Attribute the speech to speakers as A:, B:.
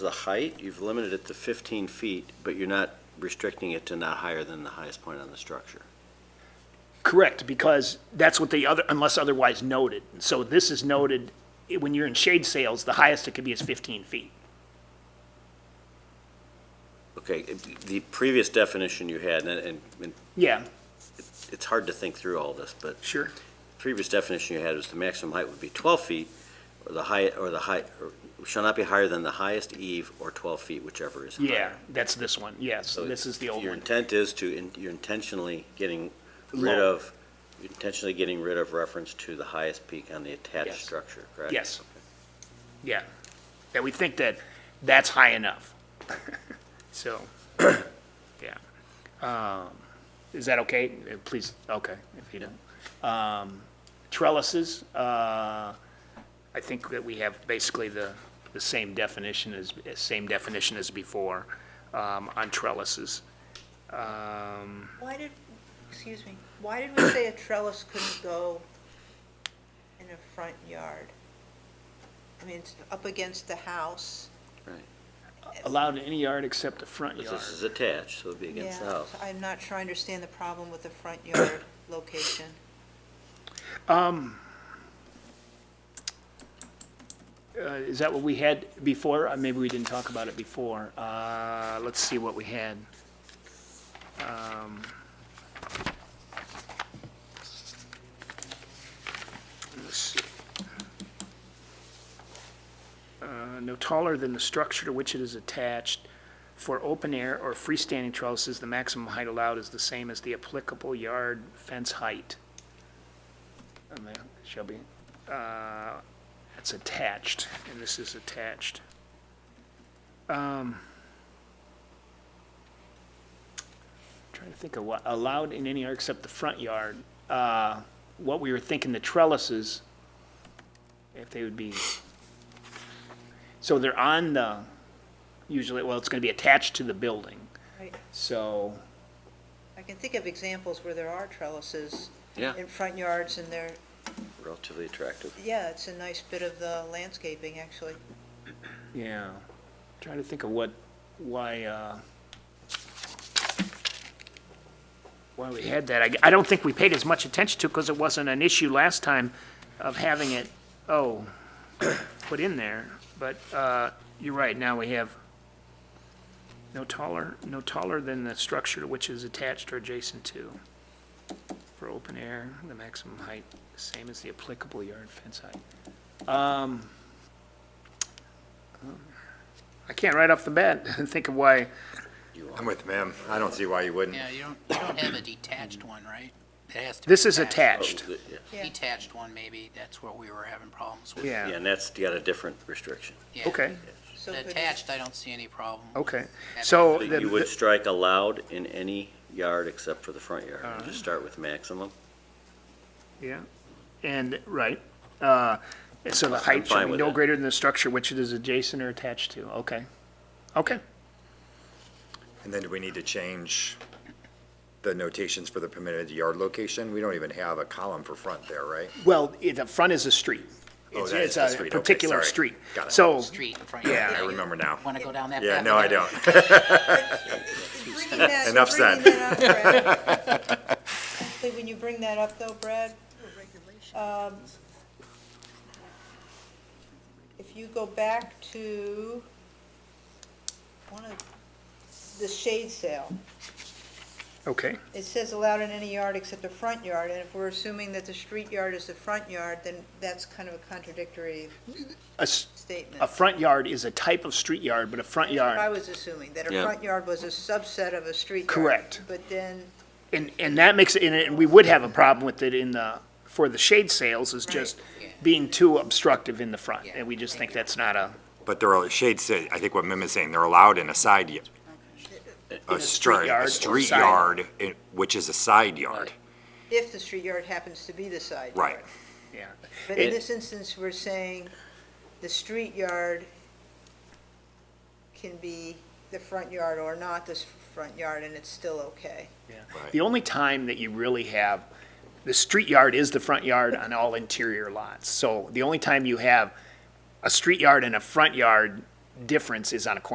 A: the height, you've limited it to 15 feet, but you're not restricting it to not higher than the highest point on the structure.
B: Correct, because that's what the other, unless otherwise noted. So this is noted, eh, when you're in shade sales, the highest it could be is 15 feet.
A: Okay, it- the previous definition you had, and- and and
B: Yeah,
A: it's hard to think through all this, but
B: sure.
A: previous definition you had was the maximum height would be 12 feet, or the height, or the height, shall not be higher than the highest eve or 12 feet, whichever is higher.
B: Yeah, that's this one, yes,
A: So
B: this is the old
A: Your
B: one.
A: intent is to, in- you're intentionally getting rid
B: Low.
A: of, you're intentionally getting rid of reference to the highest peak on the attached
B: Yes.
A: structure, correct?
B: Yes. Yeah, that we think that that's high enough. So, yeah. Um, Is that okay? Eh, Please, okay, if you don't. Um, Trellises, uh, I think that we have basically the, the same definition as, eh, same definition as before um, on trellises. Um,
C: Why did, excuse me, why did we say a trellis couldn't go in a front yard? I mean, it's up against the house.
A: Right.
B: Allowed in any yard except the front
A: But
B: yard.
A: this is attached, so it'd be against the
C: Yeah,
A: house.
C: so I'm not sure I understand the problem with the front yard location.
B: Uh, Is that what we had before? Uh, Maybe we didn't talk about it before. Uh, Let's see what we had. Um, let's see. Uh, No taller than the structure to which it is attached. For open air or freestanding trellises, the maximum height allowed is the same as the applicable yard fence height. And there, shall be. It's attached, and this is attached. Um, Trying to think of what, allowed in any yard except the front yard. Uh, What we were thinking, the trellises, if they would be, so they're on the, usually, well, it's going to be attached to the building,
C: Right?
B: so,
C: I can think of examples where there are trellises
A: Yeah,
C: in front yards and they're,
A: relatively attractive.
C: yeah, it's a nice bit of the landscaping, actually.
B: yeah. Trying to think of what, why, uh, why we had that. I, I don't think we paid as much attention to, because it wasn't an issue last time of having it, oh, put in there. But, uh, you're right, now we have no taller, no taller than the structure which is attached or adjacent to. For open air, the maximum height, same as the applicable yard fence height. Um, I can't right off the bat think of why,
D: I'm with ma'am. I don't see why you wouldn't.
E: Yeah, you don't, you don't have a detached one, right? It has to. be
B: this is
A: Oh,
B: attached,
A: the- Yeah,
C: Yeah.
E: Detached one, maybe, that's what we were having problems with.
A: Yeah,
B: yeah,
A: and that's got a different restriction.
E: Yeah.
B: okay,
C: So
E: The
C: could-
E: Attached, I don't see any problem.
B: okay. So.
A: But
B: the-
A: You would strike allowed in any yard except for the front yard, and just start with maximum.
B: Yeah, and, right, uh, so the height
A: fine
B: should be
A: with
B: no
A: it.
B: greater than the structure which it is adjacent or attached to, okay. Okay,
D: And then do we need to change the notations for the permitted yard location? We don't even have a column for front there, right?
B: well, it- the front is a street.
D: Oh,
B: It's-
D: that is the street.
B: It's
D: Okay,
B: a particular
D: sorry.
B: street.
D: Got it.
B: So,
E: Street in front of
B: Yeah,
D: I remember now.
E: Want to go down that path?
D: Yeah, no, I don't.
C: Bringing that-
D: Enough
C: bringing
D: said.
C: that up, Brad. Actually, When you bring that up though, Brad, um, if you go back to one of the shade sale,
B: okay,
C: it says allowed in any yard except the front yard, and if we're assuming that the street yard is the front yard, then that's kind of a contradictory
B: a, s-
C: statement.
B: a front yard is a type of street yard, but a front
C: I
B: yard,
C: was assuming that a
A: Yeah.
C: front yard was a subset of a street yard.
B: Correct.
C: But then
B: and, and that makes, it and- and we would have a problem with it in the, for the shade sales is just
E: Yeah.
B: being too obstructive in the front,
E: Yeah.
B: and we just think that's not a,
D: But there are shades, that- I think what Mim is saying, they're allowed in a side, y- a
B: street
D: street,
B: yard or
D: a street
B: side.
D: yard, i- which is a side yard.
C: if the street yard happens to be the side yard.
D: Right.
B: yeah.
C: But
B: It-
C: in this instance, we're saying the street yard can be the front yard or not the s- front yard, and it's still okay.
D: Right.
B: The only time that you really have, the street yard is the front yard on all interior lots. So the only time you have a street yard and a front yard difference is on a corner